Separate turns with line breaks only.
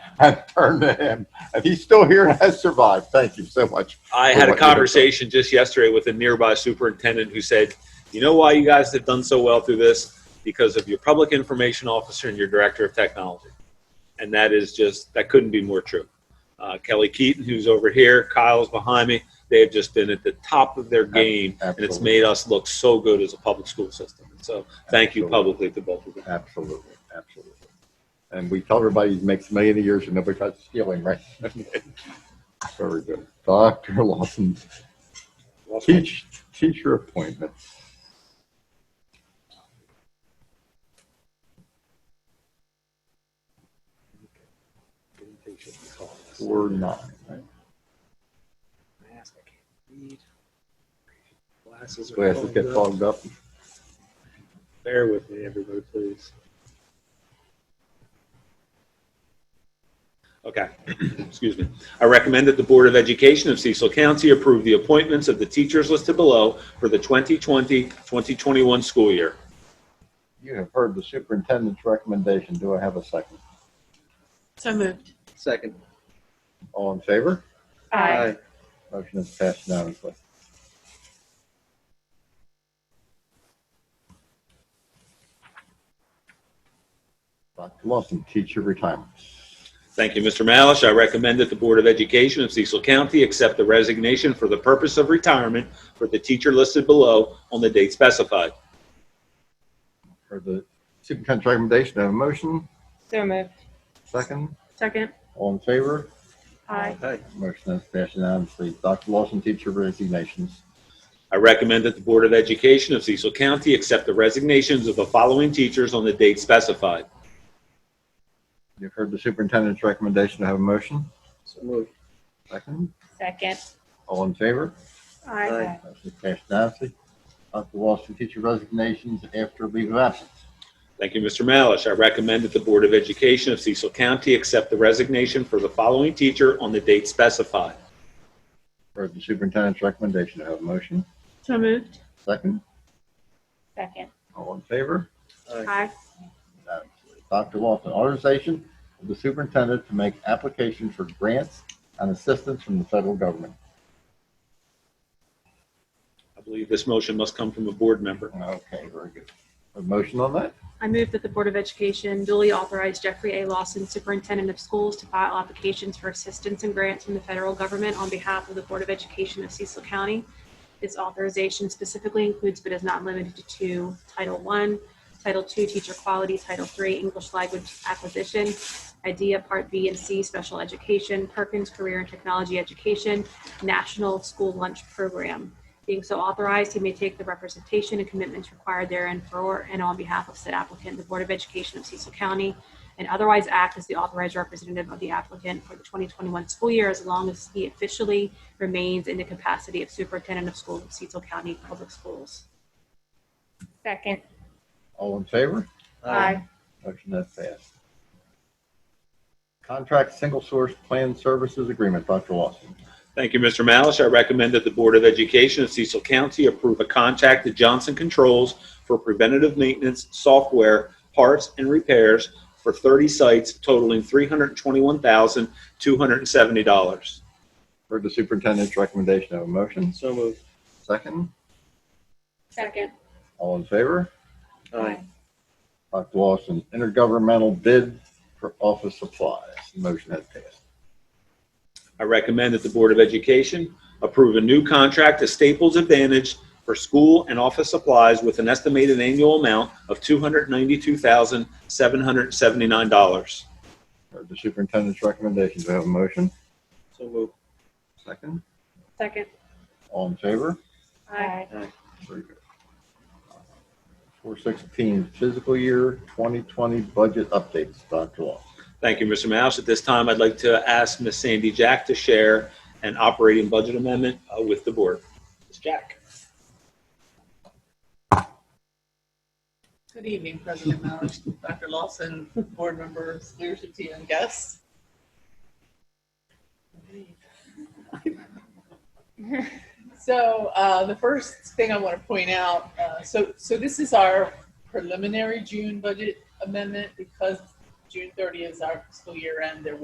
and turn to him. If he's still here and has survived, thank you so much.
I
Or
had a
what you have
conversation just yesterday with a nearby superintendent who said, "You know why you guys have done so well through this? Because of your public information officer and your director of technology." And that is just that couldn't be more true. Uh, Kelly Keaton, who's over here, Kyle's behind me. They have just been at the top of their game, and it's
absolutely.
made us look so good as a public school system. So, thank you
Absolutely.
publicly to both of you.
Absolutely, absolutely. And we tell everybody he makes a million a year, so nobody tries to steal him, right? Very good. Dr. Lawson, teach, teacher appointments. Four nine, right?
Glasses
Glasses get fogged up.
Bear with me, everybody, please. Okay, excuse me. I recommend that the Board of Education of Cecil County approve the appointments of the teachers listed below for the 2020-2021 school year.
You have heard the superintendent's recommendation. Do I have a second?
So moved.
Second.
All in favor?
Aye.
Motion is passed unanimously. Dr. Lawson, teacher retirements.
Thank you, Mr. Malish. I recommend that the Board of Education of Cecil County accept the resignation for the purpose of retirement for the teacher listed below on the date specified.
For the superintendent's recommendation, I have a motion.
So moved.
Second,
Second.
all in favor?
Aye.
Aye.
Motion is passed unanimously. Dr. Lawson, teacher resignations.
I recommend that the Board of Education of Cecil County accept the resignations of the following teachers on the date specified.
You've heard the superintendent's recommendation, I have a motion.
So moved.
Second,
Second.
all in favor?
Aye.
Motion is passed unanimously. Dr. Lawson, teacher resignations after leave of absence.
Thank you, Mr. Malish. I recommend that the Board of Education of Cecil County accept the resignation for the following teacher on the date specified.
Heard the superintendent's recommendation, I have a motion.
So moved.
Second,
Second.
all in favor?
Aye.
Aye.
Dr. Lawson, authorization of the superintendent to make application for grants and assistance from the federal government.
I believe this motion must come from a board member.
Okay, very good. A motion on that?
I move that the Board of Education duly authorize Jeffrey A. Lawson, Superintendent of Schools, to file applications for assistance and grants from the federal government on behalf of the Board of Education of Cecil County. This authorization specifically includes but is not limited to Title I, Title II, Teacher Quality, Title III, English Language Acquisition, IDEA Part B and C, Special Education, Perkins Career and Technology Education, National School Lunch Program. Being so authorized, he may take the representation and commitments required therein for and on behalf of said applicant, the Board of Education of Cecil County, and otherwise act as the authorized representative of the applicant for the 2021 school year as long as he officially remains in the capacity of Superintendent of Schools of Cecil County Public Schools.
Second.
All in favor?
Aye.
Motion that passed. Contract single source plan services agreement, Dr. Lawson.
Thank you, Mr. Malish. I recommend that the Board of Education of Cecil County approve a contract to Johnson Controls for preventative maintenance, software, parts, and repairs for 30 sites totaling $321,270.
Heard the superintendent's recommendation, I have a motion.
So moved.
Second,
Second.
all in favor?
Aye.
Dr. Lawson, intergovernmental bid for office supplies. Motion that passed.
I recommend that the Board of Education approve a new contract to Staples Advantage for school and office supplies with an estimated annual amount of $292,779.
Heard the superintendent's recommendation, do I have a motion?
So moved.
Second,
Second.
all in favor?
Aye.
Four sixteen, fiscal year twenty twenty budget updates, Dr. Law.
Thank you, Mr. Mouse. At this time, I'd like to ask Ms. Sandy Jack to share an operating budget amendment uh, with the Board. Ms. Jack.
Good evening, President Malish, Dr. Lawson, board members, leadership team, and guests. So uh, the first thing I want to point out, uh, so, so this is our preliminary June budget amendment because June 30 is our fiscal year end. There